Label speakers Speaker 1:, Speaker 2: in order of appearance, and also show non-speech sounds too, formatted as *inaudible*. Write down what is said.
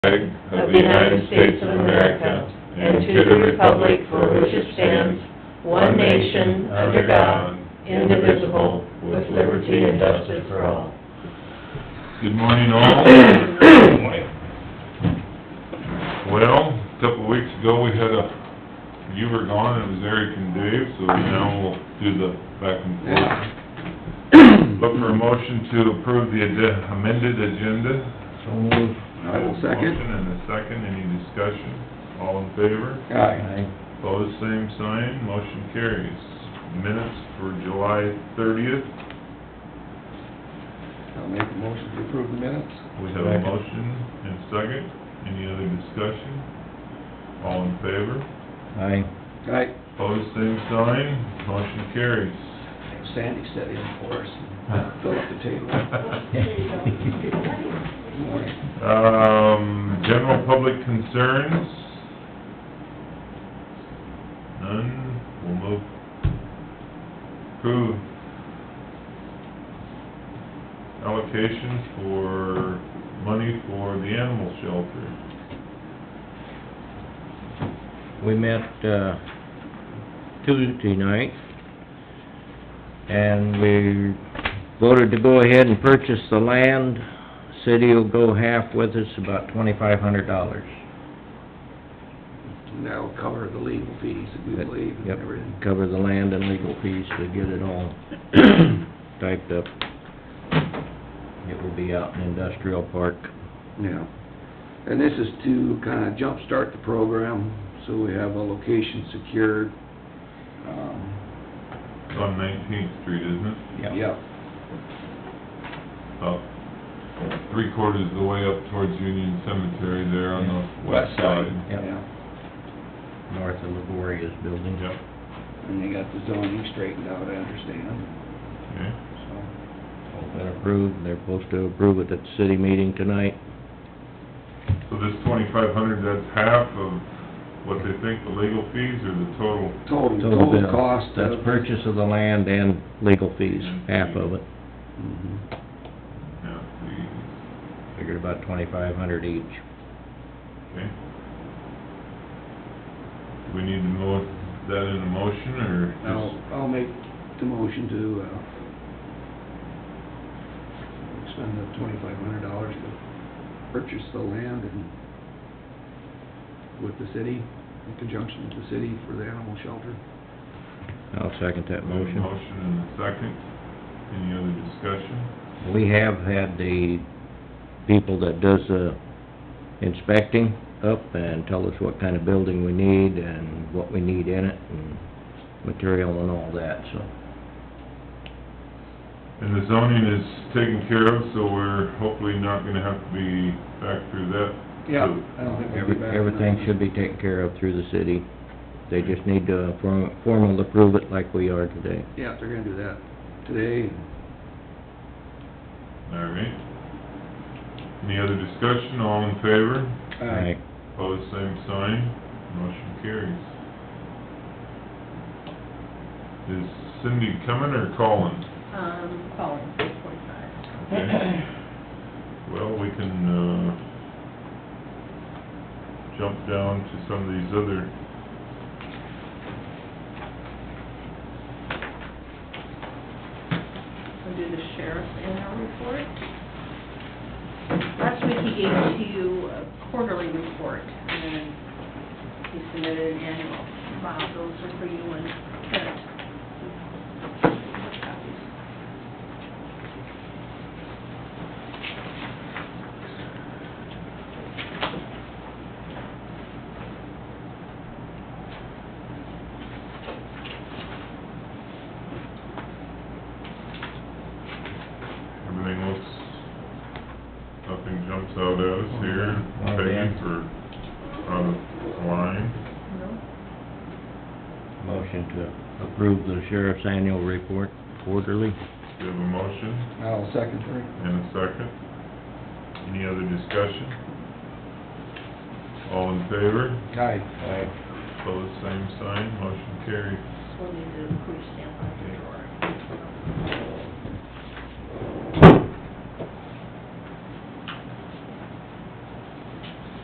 Speaker 1: flag of the United States of America and to the republic for which it stands, one nation, under God, indivisible, with liberty and justice for all. Good morning, *coughs* all. Well, a couple of weeks ago, we had a, you were gone, it was Eric and Dave, so now we'll do the back and forth. *coughs* Look for a motion to approve the ad- amended agenda.
Speaker 2: So moved.
Speaker 3: I will second.
Speaker 1: Motion and a second, any discussion? All in favor?
Speaker 3: Aye.
Speaker 1: Opposed, same sign, motion carries. Minutes for July thirtieth,
Speaker 3: I'll make a motion to approve the minutes.
Speaker 1: we have a
Speaker 2: Second.
Speaker 1: motion and second, any other discussion? All in favor?
Speaker 2: Aye.
Speaker 3: Aye.
Speaker 1: Opposed, same sign, motion carries.
Speaker 3: Sandy set in for us, and filled up the table.
Speaker 2: *laughs*
Speaker 3: Good morning.
Speaker 1: Um, general public concerns? None, we'll move. Approve allocation for money for the animal shelter.
Speaker 2: We met, uh, Tuesday night, and we voted to go ahead and purchase the land. City will go half with us, about twenty-five hundred dollars.
Speaker 3: And that'll cover the legal fees that we believe and
Speaker 2: Yep,
Speaker 3: everything.
Speaker 2: cover the land and legal fees to get it
Speaker 3: *coughs*
Speaker 2: all typed up. It will be out in industrial park.
Speaker 3: Yeah. And this is to kinda jumpstart the program, so we have a location secured. Um,
Speaker 1: It's on Nineteenth Street, isn't it?
Speaker 3: Yep.
Speaker 1: About three quarters of the way up towards Union Cemetery there on the west side.
Speaker 2: Yep.
Speaker 3: Yeah.
Speaker 2: North of Laboria's building.
Speaker 1: Yep,
Speaker 3: And they got the zoning straightened out, I understand,
Speaker 1: okay.
Speaker 3: so.
Speaker 2: All been approved, they're supposed to approve it at the city meeting tonight.
Speaker 1: So this twenty-five hundred, that's half of what they think the legal fees or the total?
Speaker 3: Total,
Speaker 2: Total
Speaker 3: Oh, total
Speaker 2: bill.
Speaker 3: cost
Speaker 2: That's
Speaker 3: of.
Speaker 2: purchase of the land and legal fees, half of it.
Speaker 3: Mhm.
Speaker 1: Yeah, fees,
Speaker 2: Figured about twenty-five hundred each.
Speaker 1: okay. Do we need to mo, that in a motion or
Speaker 3: I'll,
Speaker 1: just?
Speaker 3: I'll make the motion to, uh, spend the twenty-five hundred dollars to purchase the land and with the city, in conjunction with the city for the animal shelter.
Speaker 2: I'll second that motion.
Speaker 1: Motion and a second. Any other discussion?
Speaker 2: We have had the people that does the inspecting up and tell us what kind of building we need and what we need in it and material and all that, so.
Speaker 1: And the zoning is taken care of, so we're hopefully not gonna have to be back through that.
Speaker 3: Yeah,
Speaker 1: So-
Speaker 3: I don't think we'll
Speaker 2: Every-
Speaker 3: be back.
Speaker 2: Everything should be taken care of through the city. They just need to form- formal approve it like we are today.
Speaker 3: Yeah, they're gonna do that today.
Speaker 1: All right. Any other discussion? All in favor?
Speaker 2: Right.
Speaker 1: Pose same sign, motion carries. Is Cindy coming or calling?
Speaker 4: Um, calling, six forty-five. *clears throat*
Speaker 1: Okay. Well, we can, uh, jump down to some of these other...
Speaker 4: We'll do the sheriff's annual report. Last week he gave to you a quarterly report, and then he submitted an annual. Bob, those are for you and Kent. Copies.
Speaker 1: Everything looks, nothing jumps out at us here.
Speaker 2: Well,
Speaker 1: Peggy
Speaker 2: Dan.
Speaker 1: for uh, out of line.
Speaker 4: No?
Speaker 2: Motion to approve the sheriff's annual report quarterly.
Speaker 1: Do you have a motion
Speaker 3: I'll second her.
Speaker 1: and a second? Any other discussion? All in favor?
Speaker 3: Aye.
Speaker 1: Pose same sign, motion carries.
Speaker 4: We'll need to approve stamp on the drawer.